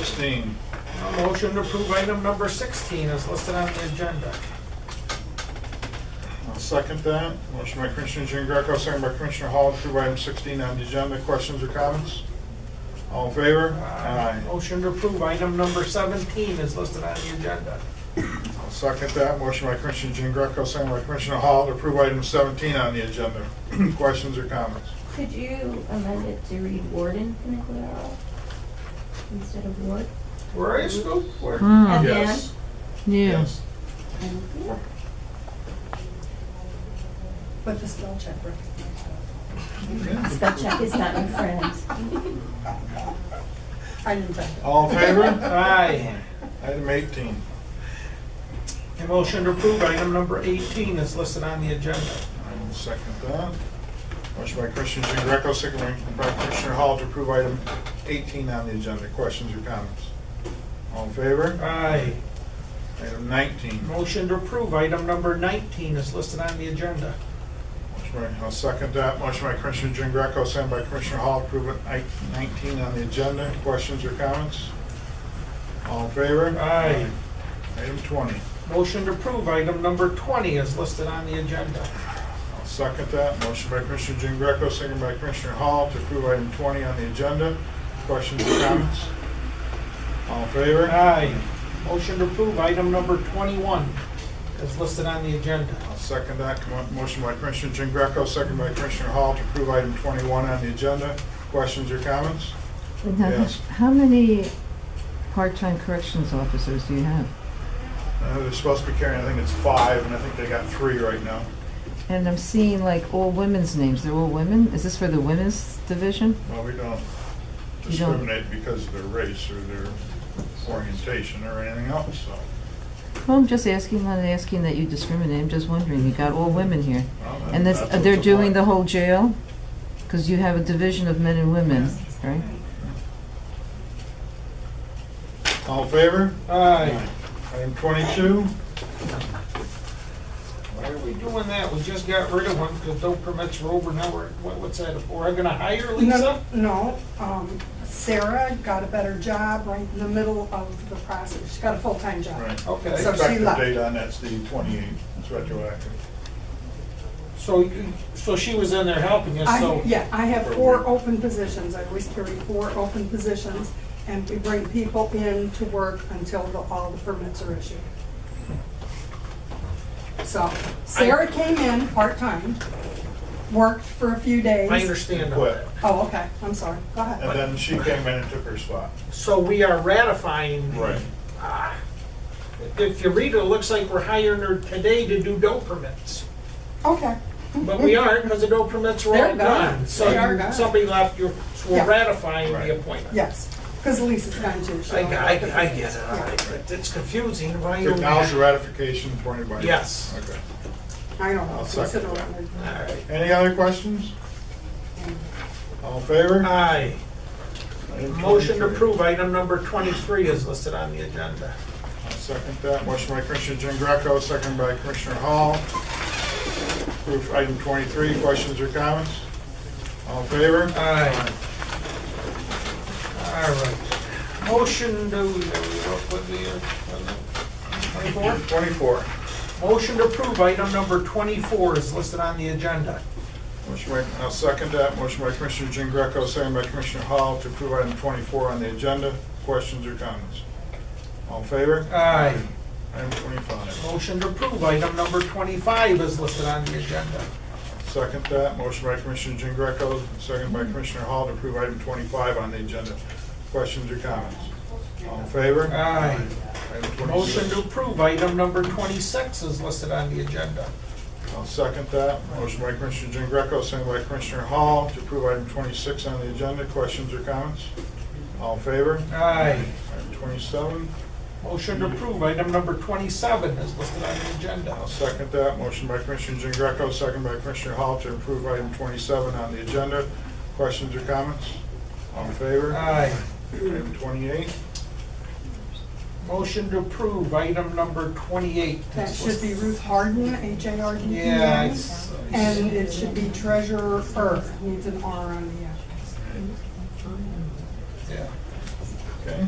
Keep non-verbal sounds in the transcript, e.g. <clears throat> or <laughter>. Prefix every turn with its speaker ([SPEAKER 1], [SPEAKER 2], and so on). [SPEAKER 1] 16.
[SPEAKER 2] A motion to approve item number 16 is listed on the agenda.
[SPEAKER 1] I'll second that. Motion by Commissioner Jean Greco, second by Commissioner Hall, to approve item 16 on the agenda. Questions or comments? All in favor? Aye.
[SPEAKER 2] Motion to approve item number 17 is listed on the agenda.
[SPEAKER 1] I'll second that. Motion by Commissioner Jean Greco, second by Commissioner Hall, to approve item 17 on the agenda. <clears throat> Questions or comments?
[SPEAKER 3] Could you amend it to read warden Funicularal instead of ward?
[SPEAKER 2] Where are you, Scoop? Where?
[SPEAKER 4] Mm.
[SPEAKER 3] At the
[SPEAKER 1] Yes.
[SPEAKER 4] Yeah.
[SPEAKER 3] end?
[SPEAKER 5] But the spell check recognizes
[SPEAKER 3] Spell check is not my friend.
[SPEAKER 5] I didn't check it.
[SPEAKER 1] All in favor?
[SPEAKER 2] Aye.
[SPEAKER 1] Item 18.
[SPEAKER 2] A motion to approve item number 18 is listed on the agenda.
[SPEAKER 1] I will second that. Motion by Commissioner Jean Greco, second by Commissioner Hall, to approve item 18 on the agenda. Questions or comments? All in favor?
[SPEAKER 2] Aye.
[SPEAKER 1] Item 19.
[SPEAKER 2] Motion to approve item number 19 is listed on the agenda.
[SPEAKER 1] Motion by- I'll second that. Motion by Commissioner Jean Greco, second by Commissioner Hall, approve item 19 on the agenda. Questions or comments? All in favor?
[SPEAKER 2] Aye.
[SPEAKER 1] Item 20.
[SPEAKER 2] Motion to approve item number 20 is listed on the agenda.
[SPEAKER 1] I'll second that. Motion by Commissioner Jean Greco, second by Commissioner Hall, to approve item 20 on the agenda. Questions or comments? All in favor?
[SPEAKER 2] Aye. Motion to approve item number 21 is listed on the agenda.
[SPEAKER 1] I'll second that. Commo- Motion by Commissioner Jean Greco, second by Commissioner Hall, to approve item 21 on the agenda. Questions or comments?
[SPEAKER 4] Now,
[SPEAKER 1] Yes.
[SPEAKER 4] How many part-time corrections officers do you have?
[SPEAKER 1] Uh, They're supposed to be carrying, I think it's five, and I think they got three right now.
[SPEAKER 4] And I'm seeing like all women's names. They're all women? Is this for the women's division?
[SPEAKER 1] Well, we don't
[SPEAKER 4] You don't-
[SPEAKER 1] discriminate because of their race or their orientation or anything else, so.
[SPEAKER 4] Well, I'm just asking, not asking that you discriminate. I'm just wondering. You got all women here.
[SPEAKER 1] well, that-
[SPEAKER 4] And this,
[SPEAKER 1] that's what
[SPEAKER 4] they're
[SPEAKER 1] the
[SPEAKER 4] doing the
[SPEAKER 1] law-
[SPEAKER 4] whole jail? Because you have a division of men and women, right?
[SPEAKER 1] All in favor?
[SPEAKER 2] Aye.
[SPEAKER 1] Item 22,
[SPEAKER 2] Why are we doing that? We just got rid of one because no permits were over. Now we're, what- what's that for? Are we gonna hire Lisa?
[SPEAKER 5] No, um, Sarah got a better job right in the middle of the process. She got a full-time job.
[SPEAKER 1] right.
[SPEAKER 5] So
[SPEAKER 2] Okay,
[SPEAKER 5] she
[SPEAKER 1] Effective
[SPEAKER 5] left.
[SPEAKER 1] date on that's the 28th, it's retroactive.
[SPEAKER 2] so, you- so she was in there helping us,
[SPEAKER 5] I,
[SPEAKER 2] so.
[SPEAKER 5] yeah, I have four open positions. I always carry four open positions, and we bring people in to work until the, all the permits are issued. So Sarah came in part-time, worked for a few days.
[SPEAKER 2] I understand all
[SPEAKER 1] Quit.
[SPEAKER 2] that.
[SPEAKER 5] Oh, okay, I'm sorry, go ahead.
[SPEAKER 1] And then she came in and took her spot.
[SPEAKER 2] So we are ratifying. Ah. If you read it, it looks like we're hiring her today to do dope permits.
[SPEAKER 5] Okay,
[SPEAKER 2] But we aren't because the dope permits were all
[SPEAKER 5] They're gone.
[SPEAKER 2] done. So
[SPEAKER 5] They are
[SPEAKER 2] you-
[SPEAKER 5] gone.
[SPEAKER 2] somebody left, you, so we're
[SPEAKER 5] Yeah.
[SPEAKER 2] ratifying
[SPEAKER 1] Right.
[SPEAKER 2] the appointment.
[SPEAKER 5] yes, because Lisa's gone too. She
[SPEAKER 2] I,
[SPEAKER 5] don't
[SPEAKER 2] I,
[SPEAKER 5] have the
[SPEAKER 2] I get it, all
[SPEAKER 5] Yeah.
[SPEAKER 2] right, but it's confusing, why you...
[SPEAKER 1] Acknowledge the ratification for anybody.
[SPEAKER 2] Yes.
[SPEAKER 1] Okay.
[SPEAKER 5] I don't
[SPEAKER 1] I'll
[SPEAKER 5] know,
[SPEAKER 1] second
[SPEAKER 5] consider
[SPEAKER 1] that.
[SPEAKER 5] it.
[SPEAKER 2] All right,
[SPEAKER 1] Any other questions? All in favor?
[SPEAKER 2] aye.
[SPEAKER 1] Item
[SPEAKER 2] Motion to
[SPEAKER 1] 23.
[SPEAKER 2] approve item number 23 is listed on the agenda.
[SPEAKER 1] I'll Second that. Motion by Commissioner Jean Greco, second by Commissioner Hall. Approve item 23. Questions or comments? All in favor?
[SPEAKER 2] Aye. All right. Motion to, what the, uh,
[SPEAKER 1] Twenty-four.
[SPEAKER 2] 24? Motion to approve item number 24 is listed on the agenda.
[SPEAKER 1] Motion by, I'll second that. Motion by Commissioner Jean Greco, second by Commissioner Hall to approve item 24 on the agenda. Questions or comments? All in favor?
[SPEAKER 2] Aye.
[SPEAKER 1] Item 25.
[SPEAKER 2] Motion to approve item number 25 is listed on the agenda.
[SPEAKER 1] Second that. Motion by Commissioner Jean Greco, second by Commissioner Hall to approve item 25 on the agenda. Questions or comments? All in favor?
[SPEAKER 2] Aye.
[SPEAKER 1] Item 26.
[SPEAKER 2] Motion to approve item number 26 is listed on the agenda.
[SPEAKER 1] I'll second that. Motion by Commissioner Jean Greco, second by Commissioner Hall to approve item 26 on the agenda. Questions or comments? All in favor?
[SPEAKER 2] Aye.
[SPEAKER 1] Item 27.
[SPEAKER 2] Motion to approve item number 27 is listed on the
[SPEAKER 1] I'll
[SPEAKER 2] agenda.
[SPEAKER 1] second that. Motion by Commissioner Jean Greco, second by Commissioner Hall to approve item 27 on the agenda. Questions or comments? All in favor?
[SPEAKER 2] Aye.
[SPEAKER 1] Item 28.
[SPEAKER 2] Motion to approve item number 28. is
[SPEAKER 5] That should be
[SPEAKER 2] listed-
[SPEAKER 5] Ruth Harden, H-A-R-D-E-N.
[SPEAKER 2] Yeah. I s- I s-
[SPEAKER 5] And it should be treasurer, needs an R on the end.
[SPEAKER 2] yeah.
[SPEAKER 1] Okay.